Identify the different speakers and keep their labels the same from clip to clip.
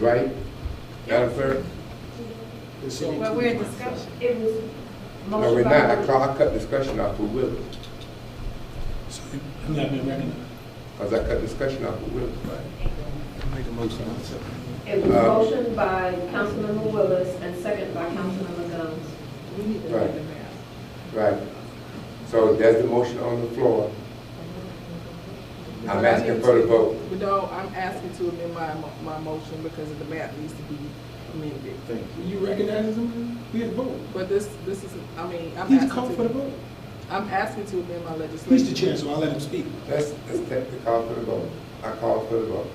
Speaker 1: right? Madam Clerk?
Speaker 2: Well, we're in discussion.
Speaker 3: It was.
Speaker 1: No, we're
Speaker 3: motion by
Speaker 1: not. I
Speaker 3: Willis.
Speaker 1: call, I cut discussion off with Willis,
Speaker 4: So you- you haven't been recognized.
Speaker 1: because I cut discussion off with Willis.
Speaker 4: Make a motion.
Speaker 3: It was
Speaker 1: Uh,
Speaker 3: motion by Councilmember Willis and second by Councilmember Guns.
Speaker 2: We need to
Speaker 1: Right.
Speaker 2: vote the mayor.
Speaker 1: Right. So there's the motion on the floor. I'm asking for the vote.
Speaker 2: But No, I'm asking to amend my, mo- my motion because the map needs to be amended.
Speaker 4: Thank you. You recognize him? We had a vote.
Speaker 2: But this, this is, I mean, I'm
Speaker 4: He's called
Speaker 2: asking
Speaker 4: for the
Speaker 2: to,
Speaker 4: vote.
Speaker 2: I'm asking to amend my legislation.
Speaker 4: He's the chair, so I'll let him speak.
Speaker 1: Let's, let's take the call for the vote. I call for the vote.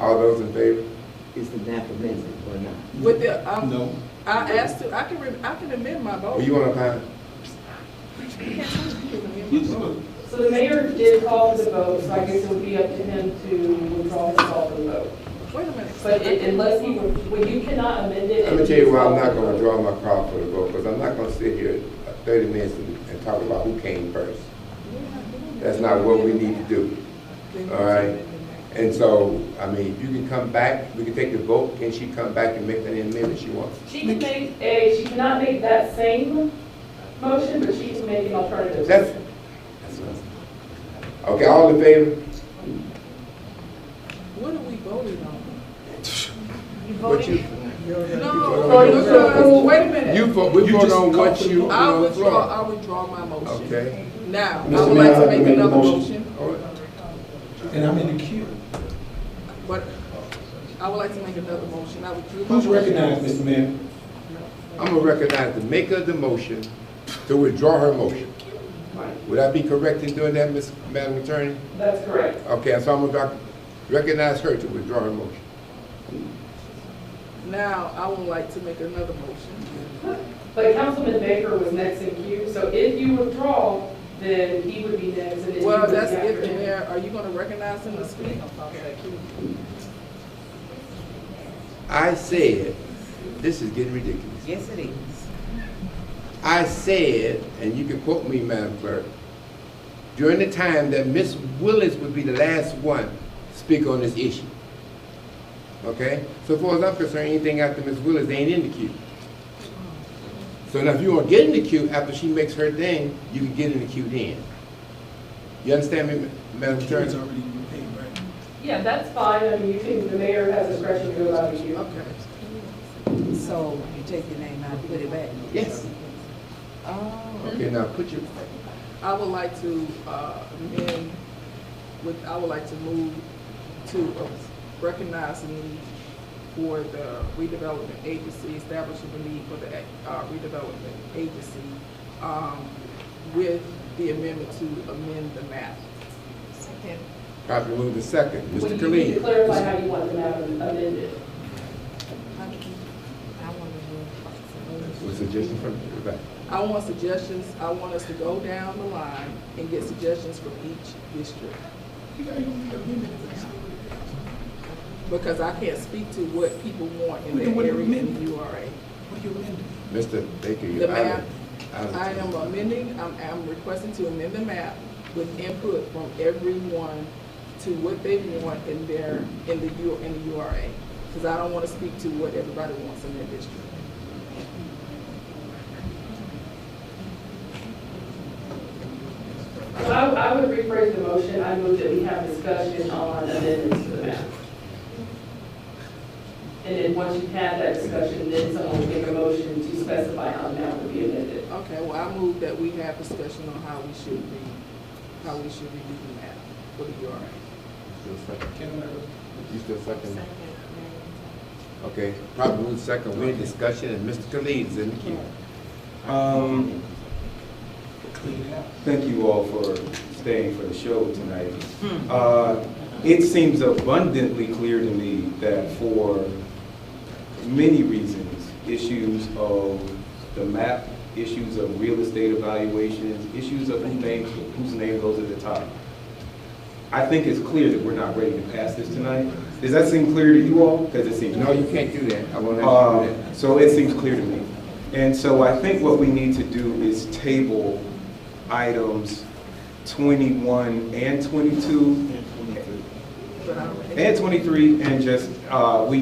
Speaker 1: All those in favor?
Speaker 5: Is the map amended or not?
Speaker 2: With the, um,
Speaker 4: No.
Speaker 2: I asked to, I can, re- I can amend my vote.
Speaker 1: Were you on a panel?
Speaker 2: I can amend
Speaker 4: You
Speaker 2: my
Speaker 4: just
Speaker 2: vote.
Speaker 4: vote.
Speaker 6: So the mayor did call the vote, so I guess it would be up to him to withdraw his call for the vote.
Speaker 2: Wait a minute.
Speaker 6: But it- unless he, well, you cannot amend it.
Speaker 1: Let me tell you why I'm not gonna withdraw my call for the vote, because I'm not gonna sit here thirty minutes and, and talk about who came first. That's not what we need to do.
Speaker 2: Then
Speaker 1: all right.
Speaker 2: amend the map.
Speaker 1: And so, I mean, if you can come back, we can take the vote, can she come back and make any amendment she wants?
Speaker 6: She can make, a. she cannot make that same motion, but she can make an alternative.
Speaker 1: That's, that's what I'm- okay, all in favor?
Speaker 2: What are we voting on?
Speaker 3: You
Speaker 1: What you-
Speaker 3: voted,
Speaker 2: No, because, wait a minute.
Speaker 1: You, vote- we
Speaker 4: You
Speaker 1: vote
Speaker 4: just
Speaker 1: on
Speaker 4: called
Speaker 1: what
Speaker 4: for
Speaker 1: you,
Speaker 4: the
Speaker 2: I
Speaker 1: on the
Speaker 2: withdraw,
Speaker 1: floor.
Speaker 2: I withdraw my motion.
Speaker 1: Okay.
Speaker 2: Now, I
Speaker 7: Mr.
Speaker 2: would like to
Speaker 7: Mayor, I
Speaker 2: make
Speaker 7: make a
Speaker 2: another
Speaker 7: motion.
Speaker 2: motion,
Speaker 1: All right.
Speaker 4: And I'm in the queue.
Speaker 2: but I would like to make another motion. I withdrew my
Speaker 4: Who's
Speaker 2: motion.
Speaker 4: recognized, Mr. Mayor?
Speaker 1: I'm gonna recognize the maker of the motion to withdraw her motion.
Speaker 6: Right.
Speaker 1: Would I be correct in doing that, Ms. Madam Attorney?
Speaker 6: That's correct.
Speaker 1: Okay, so I'm gonna recognize her to withdraw her motion.
Speaker 2: Now, I would like to make another motion.
Speaker 6: But Councilman Baker was next in queue, so if you withdraw, then he would be next, and then you would
Speaker 2: Well,
Speaker 6: be
Speaker 2: that's
Speaker 6: after
Speaker 2: if the
Speaker 6: him.
Speaker 2: mayor, are you gonna recognize him to speak?
Speaker 1: I said, this is getting ridiculous.
Speaker 5: Yes, it is.
Speaker 1: I said, and you can quote me, Madam Clerk, during the time that Ms. Willis would be the last one to speak on this issue. Okay? So far as I'm concerned, anything after Ms. Willis ain't in the queue. So now if you want to get in the queue after she makes her thing, you can get in the queue then. You understand me, Ma- Madam
Speaker 4: Karen's
Speaker 1: Attorney?
Speaker 4: already been paid, right?
Speaker 6: Yeah, that's fine, I mean, you can, the mayor has discretion to go out of you.
Speaker 2: Okay.
Speaker 8: So you take your name out, put it back.
Speaker 1: Yes. Okay, now put your,
Speaker 2: I would like to, uh, amend with, I would like to move to recognize the need for the redevelopment agency, establishing the need for the uh, redevelopment agency, um, with the amendment to amend the map.
Speaker 1: probably move the second.
Speaker 6: Well,
Speaker 1: Mr.
Speaker 6: you need to
Speaker 1: Khalid.
Speaker 6: clarify how you want the map amended.
Speaker 1: With suggestion from the back.
Speaker 2: I want suggestions, I want us to go down the line and get suggestions from each district. Because I can't speak to what people want in
Speaker 4: Well,
Speaker 2: their
Speaker 4: then what do
Speaker 2: area
Speaker 4: you
Speaker 2: in the
Speaker 4: mean?
Speaker 2: URA.
Speaker 4: What do you amend?
Speaker 1: Mr. Baker,
Speaker 2: The
Speaker 1: you're out
Speaker 2: map.
Speaker 1: of, out of
Speaker 2: I am
Speaker 1: time.
Speaker 2: amending, I'm, I'm requesting to amend the map with input from everyone to what they want in their, in the U, in the URA. Because I don't want to speak to what everybody wants in their district.
Speaker 6: So I, I would rephrase the motion, I move that we have discussion on amendments to the map. And then once you've had that discussion, then someone will make a motion to specify how the map would be amended.
Speaker 2: Okay, well, I move that we have discussion on how we should be, how we should be doing that for the URA.
Speaker 1: Still second.
Speaker 4: Karen, uh,
Speaker 1: You still second? Okay, probably move second, we're in discussion, and Mr. Khalid is in the queue.
Speaker 7: Um,
Speaker 4: clean it out.
Speaker 7: thank you all for staying for the show tonight. Uh, it seems abundantly clear to me that for many reasons, issues of the map, issues of real estate evaluations, issues of who names, whose name goes at the top. I think it's clear that we're not ready to pass this tonight. Does that seem clear to you all? Because it seems.
Speaker 1: No, you can't do that, I won't let you do
Speaker 7: Um, So it seems clear to me. And so I think what we need to do is table items 21 and 22
Speaker 2: But I don't-
Speaker 7: and 23 and just, uh, we